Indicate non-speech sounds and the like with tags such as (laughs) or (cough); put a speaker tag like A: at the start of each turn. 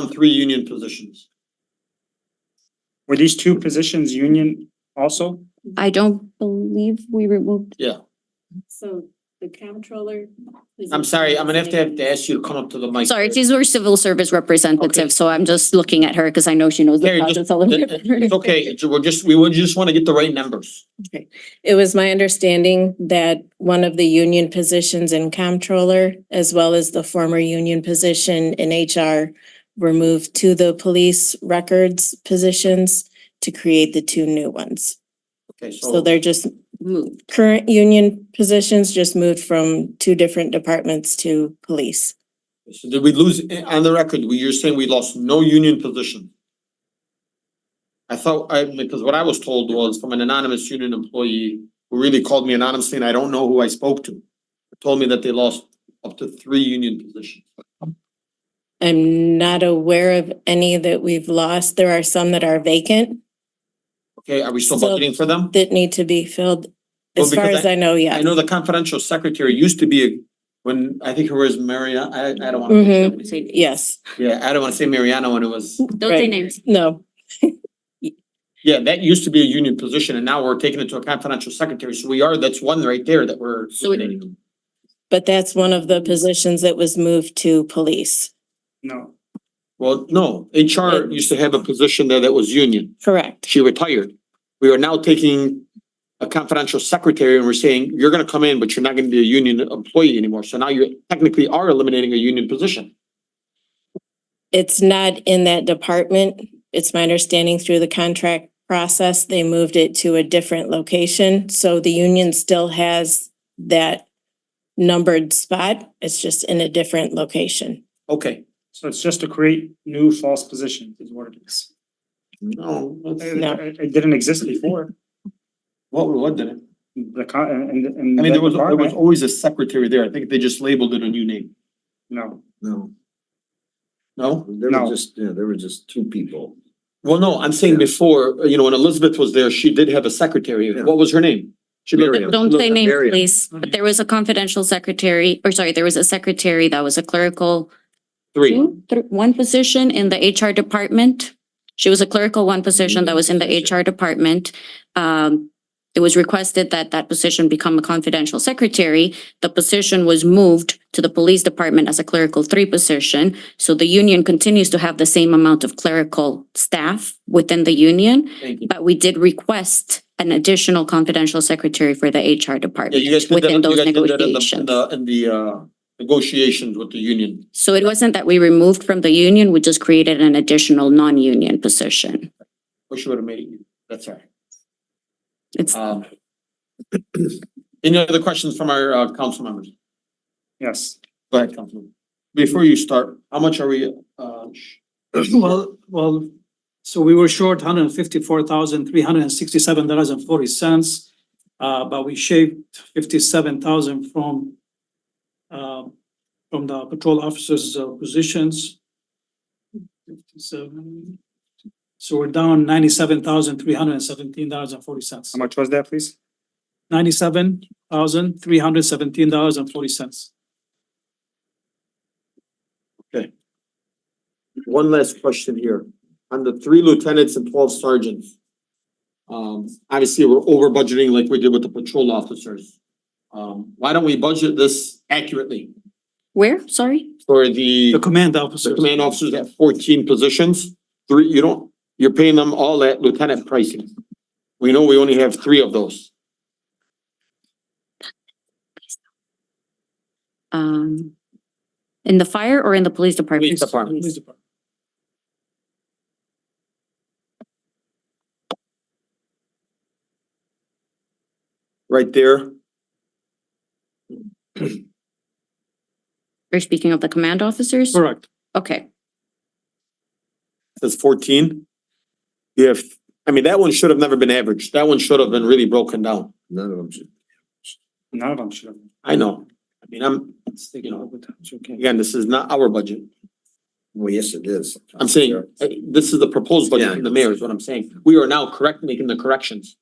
A: on three union positions.
B: Were these two positions union also?
C: I don't believe we removed,
D: So the comptroller.
A: I'm sorry, I'm gonna have to have to ask you to come up to the mic.
C: sorry, these were civil service representatives, so I'm just looking at her because I know she knows the
A: Carrie, just-
C: process a little bit better. (laughs)
A: It's okay, we're just, we would just wanna get the right numbers.
D: It was my understanding that one of the union positions in comptroller, as well as the former union position in HR, were moved to the police records positions to create the two new ones.
A: Okay,
D: So
A: so,
D: they're just,
C: Moved.
D: current union positions just moved from two different departments to police.
A: so did we lose, eh, on the record, we, you're saying we lost no union position? I thought, I, because what I was told was from an anonymous union employee, who really called me anonymously and I don't know who I spoke to. Told me that they lost up to three union positions.
D: I'm not aware of any that we've lost. There are some that are vacant
A: Okay, are we still
D: So-
A: budgeting for them?
D: that need to be filled.
A: Well,
D: As far
A: because
D: as I know,
A: I
D: yes.
A: know the confidential secretary used to be, a- when, I think her was Maria, I, I don't wanna.
D: Mhm.
C: Don't
D: Yes,
A: Yeah, I don't wanna say Mariano when it was,
C: say
D: Right.
C: names.
D: no,
A: yeah, that used to be a union position and now we're taking it to a confidential secretary, so we are, that's one right there that we're.
C: So it-
A: eliminating.
D: but that's one of the positions that was moved to police.
B: No.
A: Well, no, HR used to have a position there that was union,
D: Correct.
A: she retired. We are now taking a confidential secretary and we're saying, you're gonna come in, but you're not gonna be a union employee anymore, so now you technically are eliminating a union position.
D: It's not in that department. It's my understanding through the contract process, they moved it to a different location. So the union still has that numbered spot. It's just in a different location.
A: Okay.
B: So it's just to create new false positions is what it is.
A: No, that's-
D: No.
B: It, it didn't exist before,
A: what, what did it?
B: the con, and, and.
A: I mean,
B: that
A: there was, there was
B: department-
A: always a secretary there. I think they just labeled it a new name.
B: No,
E: No,
A: No?
E: there
B: No.
E: were just, yeah, there were just two people.
A: Well, no, I'm saying before, uh, you know, when Elizabeth was there, she did have a secretary.
E: Yeah.
A: What was her name? She looked-
E: Miriam.
C: Don't say
E: Look,
C: names,
E: Miriam.
C: please. But there was a confidential secretary, or sorry, there was a secretary that was a clerical
A: Three.
C: two, thr- one position in the HR department. She was a clerical one position that was in the HR department. Um, it was requested that that position become a confidential secretary. The position was moved to the police department as a clerical three position. So the union continues to have the same amount of clerical staff within the union.
A: Thank you.
C: But we did request an additional confidential secretary for the HR
A: Yeah,
C: department
A: you guys did that, you
C: within
A: guys did
C: those
A: that in the, in
C: negotiations.
A: the, in the, uh, negotiations with the union.
C: So it wasn't that we removed from the union, we just created an additional non-union position.
A: Wish you would have made it. That's all right.
C: It's,
A: Um. (clears throat) Any other questions from our, uh, council members?
B: yes.
A: Go ahead, Councilman. Before you start, how much are we, uh, sh-
F: Well, well, so we were short hundred and fifty-four thousand, three hundred and sixty-seven dollars and forty cents. Uh, but we shaved fifty-seven thousand from uh, from the patrol officers' uh, positions. Fifty-seven. So we're down ninety-seven thousand, three hundred and seventeen dollars and forty cents.
B: How much was that, please?
F: Ninety-seven thousand, three hundred and seventeen dollars and forty cents.
A: One last question here. On the three lieutenants and twelve sergeants. Um, obviously, we're over budgeting like we did with the patrol officers. Um, why don't we budget this accurately
C: where, sorry?
A: for the
F: The command
A: the
F: officers.
A: command officers at fourteen positions? Three, you don't, you're paying them all at lieutenant pricing. We know we only have three of those.
C: Um, in the fire or in the police department?
A: Police department.
F: Police department.
A: Right there,
C: You're speaking of the command officers?
F: Correct.
C: Okay,
A: that's fourteen. You have, I mean, that one should have never been averaged. That one should have been really broken down.
E: None of them should.
B: None of them should have.
A: I know. I mean, I'm, you know, again, this is not our budget.
E: Well, yes, it is.
A: I'm saying, uh, this is the proposed
E: Yeah, I
A: budget from the mayor is what I'm saying. We are now correct, making the corrections.